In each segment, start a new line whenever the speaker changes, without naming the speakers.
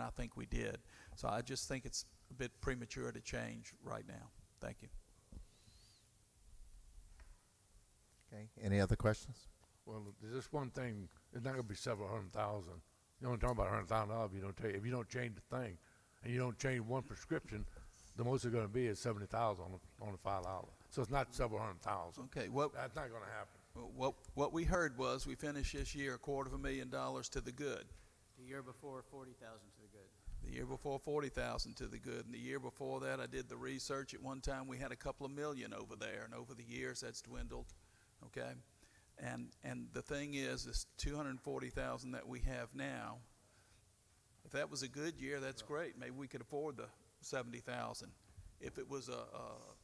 I think we did. So I just think it's a bit premature to change right now. Thank you.
Okay, any other questions?
Well, there's just one thing, it's not gonna be several hundred thousand. You only talking about a hundred thousand dollars if you don't take, if you don't change the thing, and you don't change one prescription, the most it's gonna be is seventy thousand on, the- on the five dollar. So it's not several hundred thousand.
Okay, what,
That's not gonna happen.
what, what we heard was we finished this year a quarter of a million dollars to the good.
The year before, forty thousand to the good.
The year before, forty thousand to the good, and the year before that, I did the research. At one time, we had a couple of million over there, and over the years, that's dwindled, okay? And, and the thing is, is two hundred and forty thousand that we have now, if that was a good year, that's great. Maybe we could afford the seventy thousand. If it was a, a,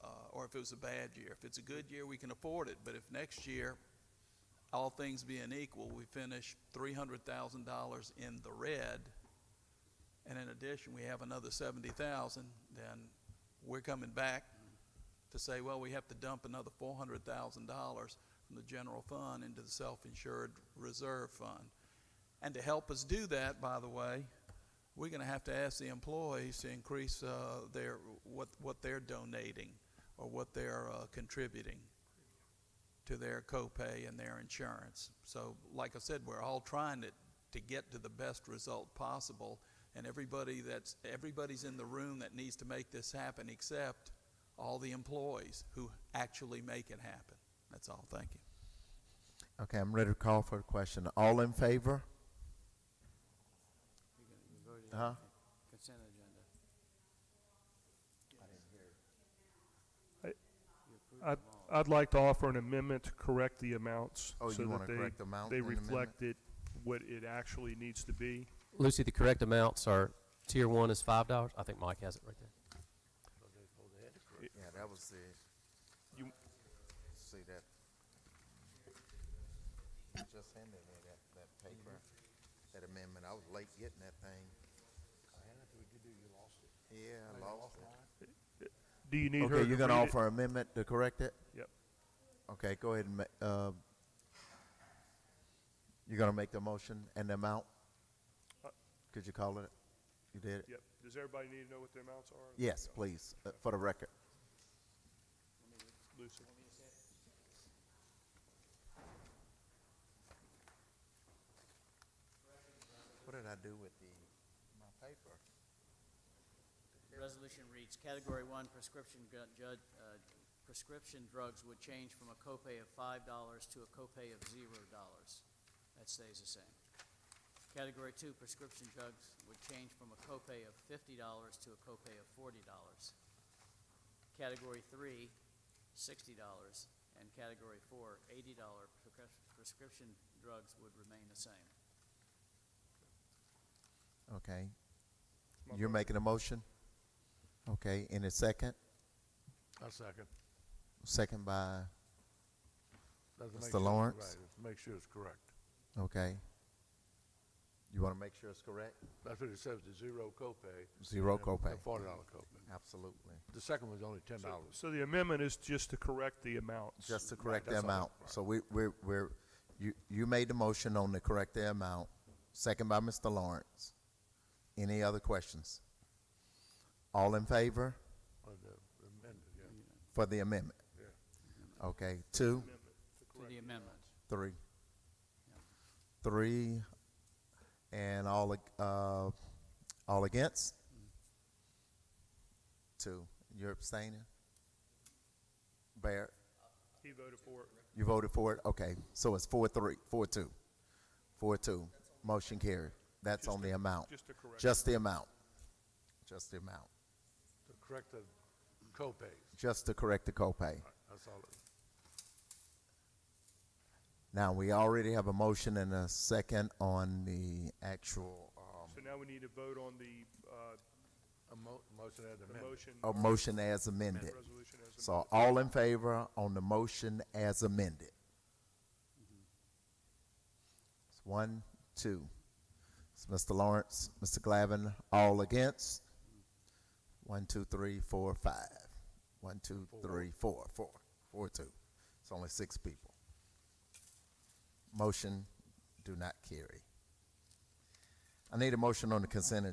a- or if it was a bad year. If it's a good year, we can afford it, but if next year, all things being equal, we finish three hundred thousand dollars in the red, and in addition, we have another seventy thousand, then we're coming back to say, well, we have to dump another four hundred thousand dollars from the general fund into the self-insured reserve fund. And to help us do that, by the way, we're gonna have to ask the employees to increase, uh, their, what, what they're donating or what they're, uh, contributing to their copay and their insurance. So, like I said, we're all trying to, to get to the best result possible, and everybody that's, everybody's in the room that needs to make this happen except all the employees who actually make it happen. That's all. Thank you.
Okay, I'm ready to call for a question. All in favor?
You can- you voted
Uh-huh.
on consent agenda.
I-
You approved
I'd,
them all.
I'd like to offer an amendment to correct the amounts.
Oh,
so
you
that
wanna
they-
correct the amount
They
in the amendment?
reflect it, what it actually needs to be.
Lucy, the correct amounts are, tier one is five dollars, I think Mike has it right there.
Yeah, that was the.
You-
See that? Just handed me that, that paper, that amendment. I was late getting that thing. Yeah, I lost it.
Do you need her to
Okay, you're gonna
read it?
offer amendment to correct it?
Yep.
Okay, go ahead and, ma- uh, you're gonna make the motion and the amount?
Uh,
Could you call it? You did? it?
Yep. Does everybody need to know what the amounts are?
Yes, please, uh, for the record.
Lucy.
What did I do with the, my paper?
Resolution reads, Category 1 prescription gu- judge, uh, prescription drugs would change from a copay of $5 to a copay of $0. That stays the same. Category 2 prescription drugs would change from a copay of $50 to a copay of $40. Category 3, $60, and Category 4, $80 prescrip- prescription drugs would remain the same.
Okay,
My
you're
vote.
making a motion? Okay, in a second,
A second.
second by,
That's
Mr.
to make sure it's
Lawrence?
right. It's to Make sure it's correct.
okay. You wanna make sure it's correct?
That's what it says, the zero copay.
Zero
and the- the
copay,
Forty dollar copay.
absolutely.
The second one's only ten
So,
dollars.
so the amendment is just to correct the amounts.
Just to
Right,
correct the
that's all.
amount. So we, we're, we're, you, you made the motion on the correct the amount, second by Mr. Lawrence. Any other questions? All in favor for the amendment?
Yeah.
Okay, two,
Amendment to
To
correct
the amendment.
three.
Yeah.
Three, and all, ag- uh, all against? Two. You're abstaining? Barrett?
He voted for it.
You voted for it? Okay, so it's four, three, four, two. Four, two. Motion carried. That's
Just
on
to-
the amount.
just to correct.
Just the amount. Just the amount.
To correct the copays,
Just to correct the copay.
that's all. it-
Now, we already have a motion and a second on the actual, um,
So now we need to vote on the, uh,
A mo- motion as
the
amended.
motion.
a motion as
and
amended.
Resolution as amended.
So all in favor on the motion as amended? It's one, two. It's Mr. Lawrence, Mr. Glavin, all against? One, two, three, four, five. One, two, three, four, four, four, two. It's only six people. Motion do not carry. I need a motion on the consent agenda.